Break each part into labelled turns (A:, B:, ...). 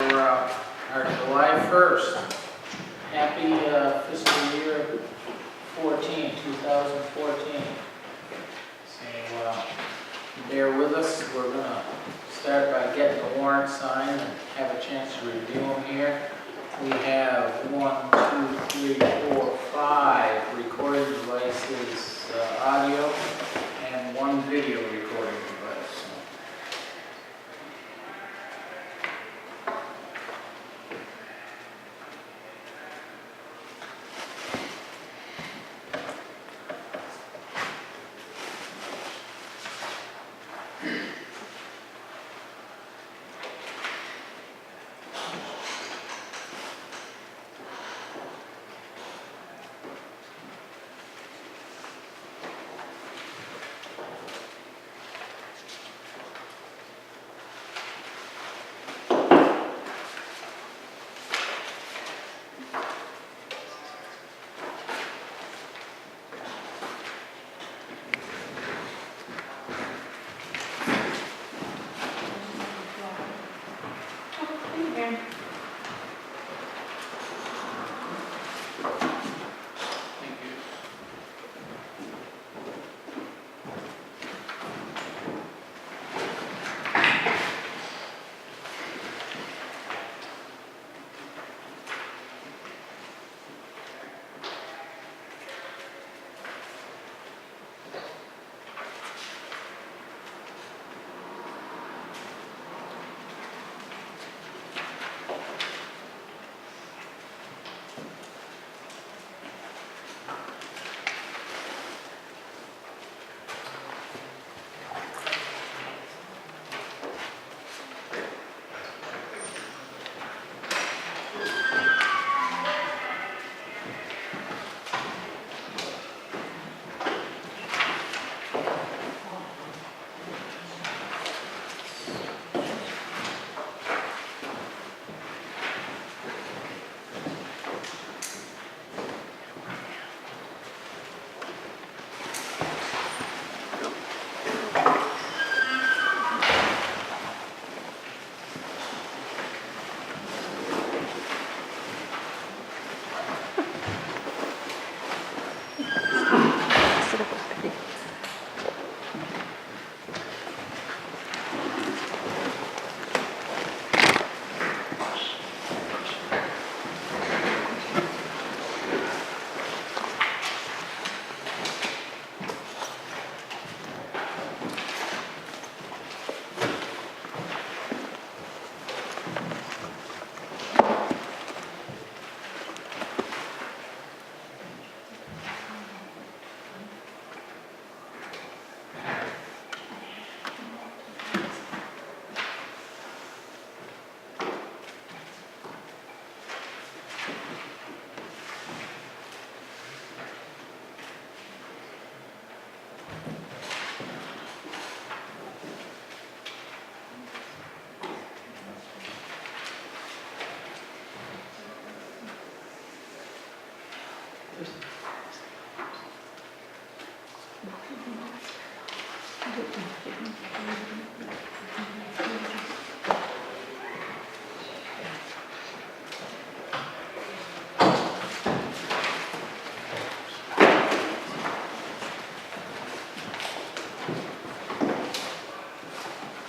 A: uh, our July 1st. Happy uh, fiscal year 14, 2014. So uh, bear with us, we're going to start by getting the warrant signed and have a chance to review them here. We have one, two, three, four, five recording devices, uh, audio, and one video recording device. So Thank you.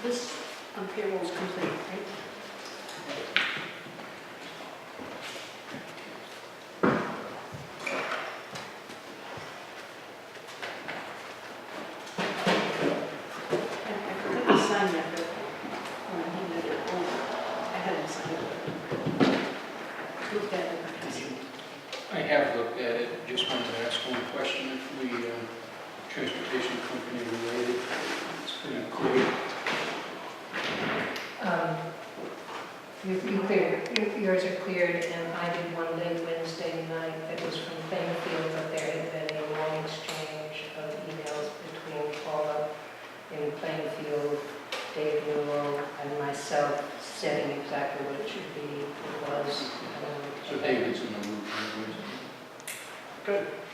B: This um, payroll is complete, right? I I forgot to sign that, but when I handed it over, I had him sign it. Looked at it, I see.
C: I have looked at it, just wanted to ask one question, if we, uh, transportation company related, it's pretty clear.
D: Um, You you cleared, you- yours are cleared, and I did one late Wednesday night that was from Plainfield, but there had been a long exchange of emails between Paula in Plainfield, Dave Newell, and myself, setting exactly what it should be, it was. um,
C: So David's in the loop, anyways.
B: Good.